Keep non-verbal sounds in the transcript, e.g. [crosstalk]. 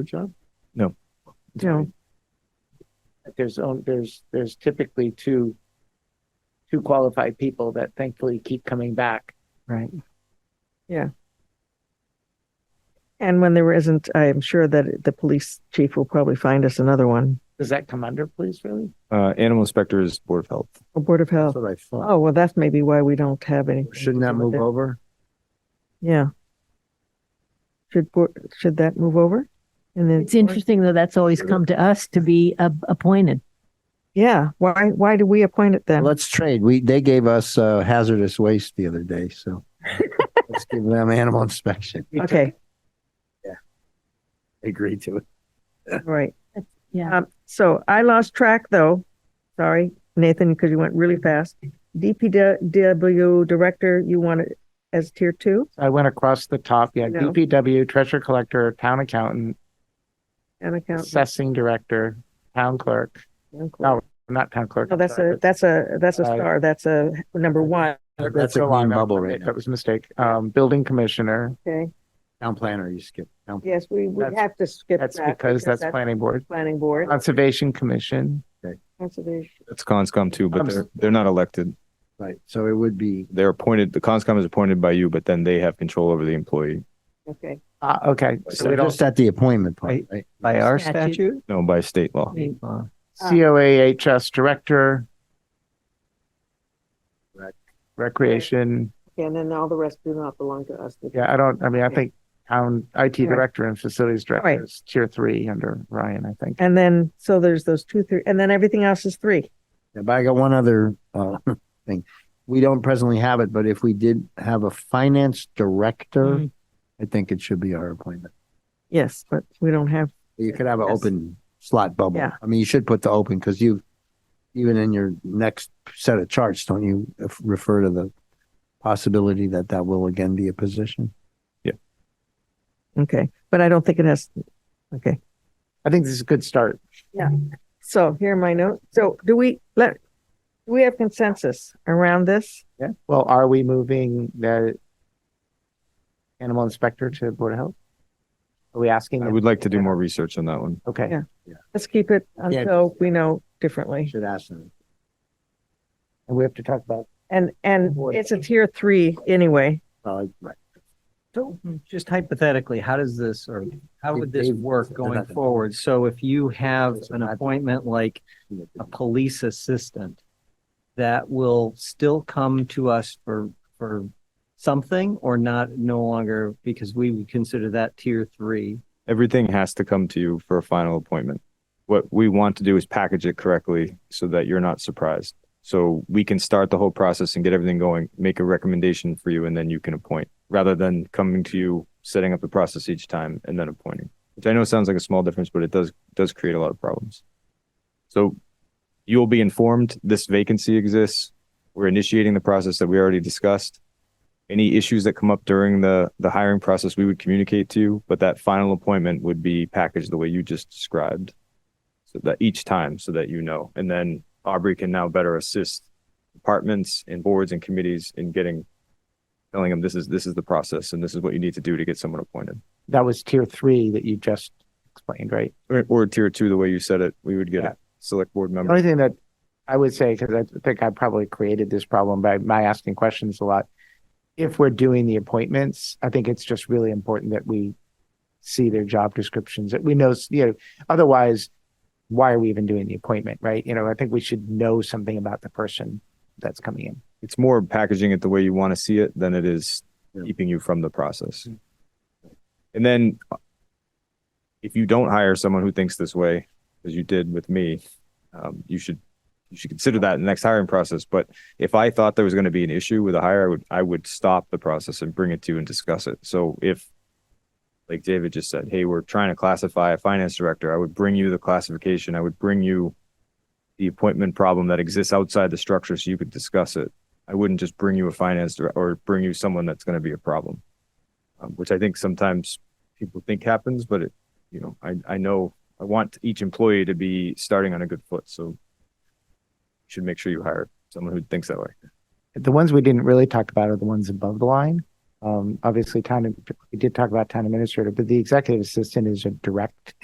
Her job? you know, There's, on- there's, there's typically two, two qualified people that thankfully keep coming back. right. Yeah. And when there isn't, I am sure that the police chief will probably find us another one. Does that come under police really? Uh, animal inspector is board of health. Or Board of Health. That's what I thought. Oh, well, that's maybe why we don't have any. Shouldn't that move over? Yeah. Should, board- should that move over? And then. It's interesting though, that's always come to us to be uh, appointed. Yeah, why, why do we appoint it then? Let's trade. We, they gave us uh, hazardous waste the other [laughs] day, so let's give them animal inspection. Okay, Agree to it. all right. Yeah. Um, so I lost track though. Sorry, Nathan, because you went really fast. DPW director, you want it as tier two? I went across the top. Yeah. No. DPW, treasurer collector, town accountant, And account. assessing director, town clerk, No, not town clerk. Oh, I'm that's sorry. a, that's a, that's a Uh, star. That's a number one. That's a So I clean know bubble right now. That was a mistake. Um, building commissioner. Okay, Town planner, you skip. Town- yes, we, we That's- have to skip that. That's because that's planning board. Planning board, Conservation commission. conservation, That's conscom too, but I'm s- they're, they're not elected. Right, so it would be, They're appointed, the conscom is appointed by you, but then they have control over the employee. okay. Uh, okay. So so we don't, just at the appointment part, right? By our Statute. statute? No, by state law. Uh, COAHS director. Rec. Recreation. Okay, And then all the rest do not belong to us. Yeah, I don't, I mean, I Okay. think town IT All right. director and facilities right. director is tier three under Ryan, I think. And then, so there's those two, three, and then everything else is three. Yeah, But I got one other uh, [laughs] thing. We don't presently have it, but if we did have a finance director, I think it should be our appointment. Yes, but we don't have, You could have an Yes. open slot bubble. Yeah. I mean, you should put the open because you, even in your next set of charts, don't you f- refer to the possibility that that will again be a position? okay, but I don't think it has, okay. I think this is a good start. So here are my notes. So do we, let, do we have consensus around this? Yeah. Well, are we moving the animal inspector to Board of Health? Are we asking? I them? would like to do more research on that one. Okay. Yeah. Let's keep it until we know You differently. should ask them. And we have to talk about, And, and it's a tier three anyway. Uh, right. So hmm, just hypothetically, how does this, or how would this They've- work they're going not gonna- forward? So if you have They're an not- appointment like a police assistant that will still come to us for, for something or not, no longer, because we would consider that tier three. Everything has to come to you for a final appointment. What we want to do is package it correctly so that you're not surprised. So we can start the whole process and get everything going, make a recommendation for you, and then you can appoint, rather than coming to you, setting up the process each time and then appointing. Which I know sounds like a small difference, but it does, does create a lot of problems. So you'll be informed this vacancy exists. We're initiating the process that we already discussed. any issues that come up during the the hiring process we would communicate to you but that final appointment would be packaged the way you just described so that each time so that you know and then aubrey can now better assist departments and boards and committees in getting telling them this is this is the process and this is what you need to do to get someone appointed that was tier three that you just explained, right? or, or tier two the way you said it we would get Yeah. Oh, a select board The member only thing that I would say, because I think I probably created this problem by my asking questions a lot. If we're doing the appointments, I think it's just really important that we see their job descriptions, that we know, you know, otherwise, why are we even doing the appointment, right? You know, I think we should know something about the person that's coming in. it's more packaging it the way you want to see it than it is Yeah. keeping you from the process. And then uh, if you don't hire someone who thinks this way, as you did with me, um, you should you should consider that in the next hiring process. But if I thought there was going to be an issue with a hire, I would I would stop the process and bring it to you and discuss it. So if like David just said, hey, we're trying to classify a finance director, I would bring you the classification. I would bring you the appointment problem that exists outside the structure so you could discuss it. I wouldn't just bring you a finance dir- or bring you someone that's going to be a problem, um, which I think sometimes people think happens, but it, you know, I, I know I want each employee to be starting on a good foot. So you should make sure you hire someone who thinks that way. The ones we didn't really talk about are the ones above the line. Um, obviously, town, we did talk about town administrator, but the executive assistant is a direct